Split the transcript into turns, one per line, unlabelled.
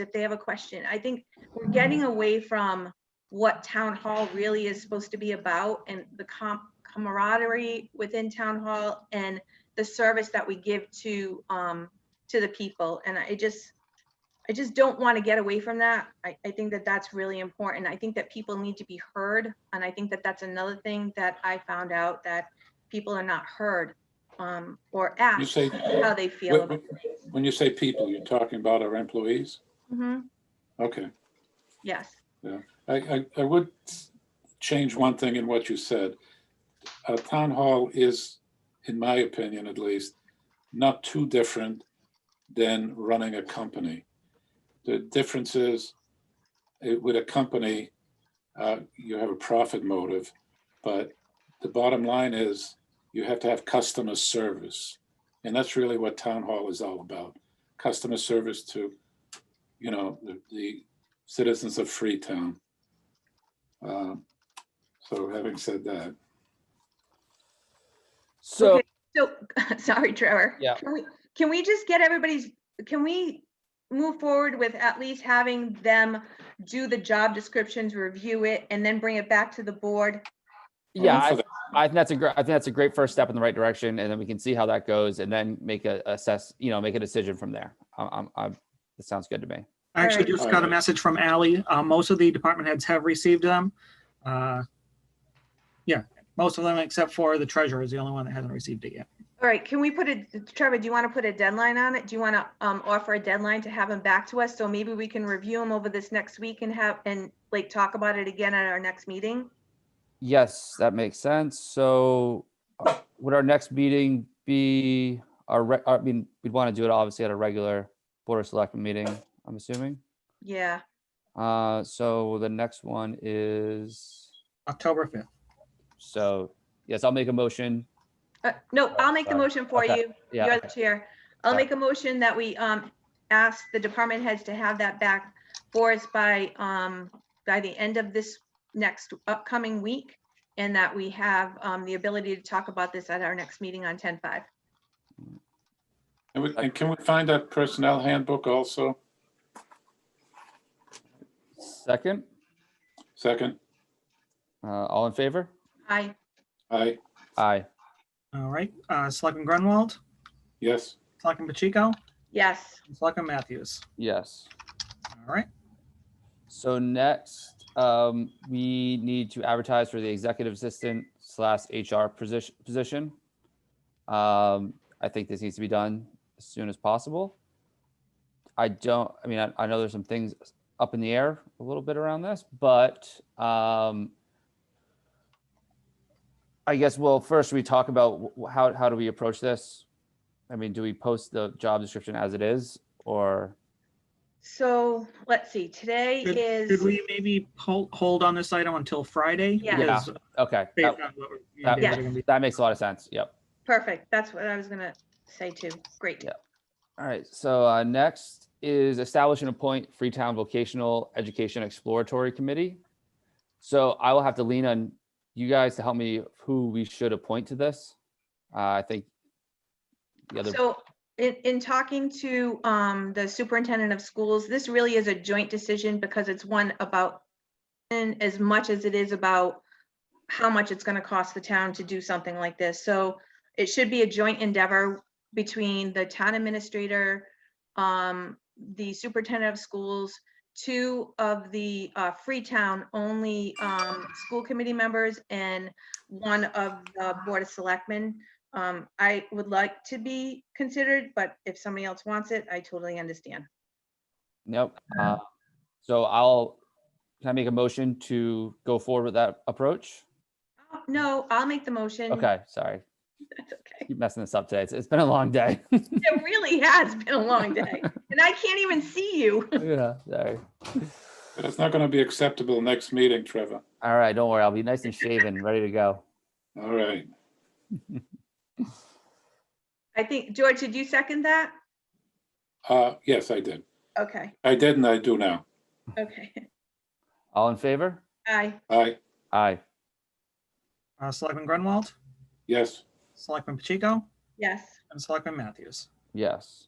if they have a question. I think we're getting away from what town hall really is supposed to be about and the com- camaraderie within town hall and the service that we give to, um, to the people. And I just, I just don't want to get away from that. I, I think that that's really important. I think that people need to be heard. And I think that that's another thing that I found out that people are not heard, um, or
You
asked
say,
how they feel.
when
about
when you say people, you're talking about our employees?
Mhm,
Okay.
Yes.
I, I, I would change one thing in what you said. Uh, town hall is, in my opinion at least, not too different than running a company. The difference is eh, with a company, uh, you have a profit motive, but the bottom line is you have to have customer service. And that's really what town hall is all about. Customer service to, you know, the, the citizens of Freetown. Um, So having said that,
So,
Okay, So, sorry, Trevor.
Yeah.
Can we, can we just get everybody's, can we move forward with at least having them do the job descriptions, review it, and then bring it back to the board?
yeah,
I'm
I,
for
I think that's a great, I think that's a great first step in the right direction. And then we can see how that goes and then make a assess, you know, make a decision from there. I'm, I'm, I'm, that sounds good to me.
I actually
Alright.
just got a
Alright.
message from Ally. Uh, most of the department heads have received them. Uh, yeah, most of them except for the treasurer is the only one that hasn't received it yet.
All right, can we put a, Trevor, do you want to put a deadline on it? Do you want to um, offer a deadline to have them back to us? So maybe we can review them over this next week and have, and like talk about it again at our next meeting?
Yes, that makes sense. So uh, would our next meeting be our, re- I mean, we'd want to do it obviously at a regular Board of Selectmen meeting, I'm assuming.
Yeah,
Uh, so the next one is,
October 5th.
so yes, I'll make a motion.
Uh, no, I'll make the
Sorry.
motion for
Okay.
you.
Yeah.
You're the chair. I'll
Sorry.
make a motion that we um ask the department heads to have that back for us by um by the end of this next upcoming week. And that we have um the ability to talk about this at our next meeting on ten five.
and we- and can we find that personnel handbook also?
Second,
Second,
uh, all in favor?
Hi,
aye,
Aye.
All right, uh, Selectman Grunwald,
yes,
Selectman Pacheco,
yes,
and Selectman Matthews.
Yes.
All right,
So next, um, we need to advertise for the executive assistant slash HR position, position. Um, I think this needs to be done as soon as possible. I don't, I mean, I, I know there's some things up in the air a little bit around this, but, um, I guess, well, first we talk about wh- how, how do we approach this? I mean, do we post the job description as it is or?
so let's see, today
Should-
is,
should we maybe hold, hold on this item until Friday?
Yeah.
Yeah.
Because
Okay. that-
based on what we're-
that-
days are gonna be-
That makes a lot of sense. Yep.
perfect, that's what I was gonna say too, great.
Yeah. All right. So uh, next is establish and appoint Freetown Vocational Education Exploratory Committee. So I will have to lean on you guys to help me who we should appoint to this. Uh, I think the other,
So in, in talking to um, the superintendent of schools, this really is a joint decision because it's one about and as much as it is about how much it's gonna cost the town to do something like this. So it should be a joint endeavor between the town administrator, um, the superintendent of schools, two of the uh, Freetown only um, school committee members and one of the Board of Selectmen. Um, I would like to be considered, but if somebody else wants it, I totally understand.
nope.
uh-huh.
Uh, So I'll, can I make a motion to go forward with that approach?
Uh, No, I'll make the motion.
Okay, sorry.
That's okay.
Keep messing this up today. It's, it's been a long day.
It really has been a long day and I can't even see you.
Yeah, sorry.
but it's not going to be acceptable next meeting, Trevor.
All right, don't worry. I'll be nice and shaven, ready to go.
All right,
I think, George, did you second that?
uh, yes, I did.
Okay,
I did and I do now.
okay.
All in favor?
Aye,
Aye,
Aye.
uh, Selectman Grunwald,
yes,
Selectman Pacheco,
yes.
and Selectman Matthews.
Yes.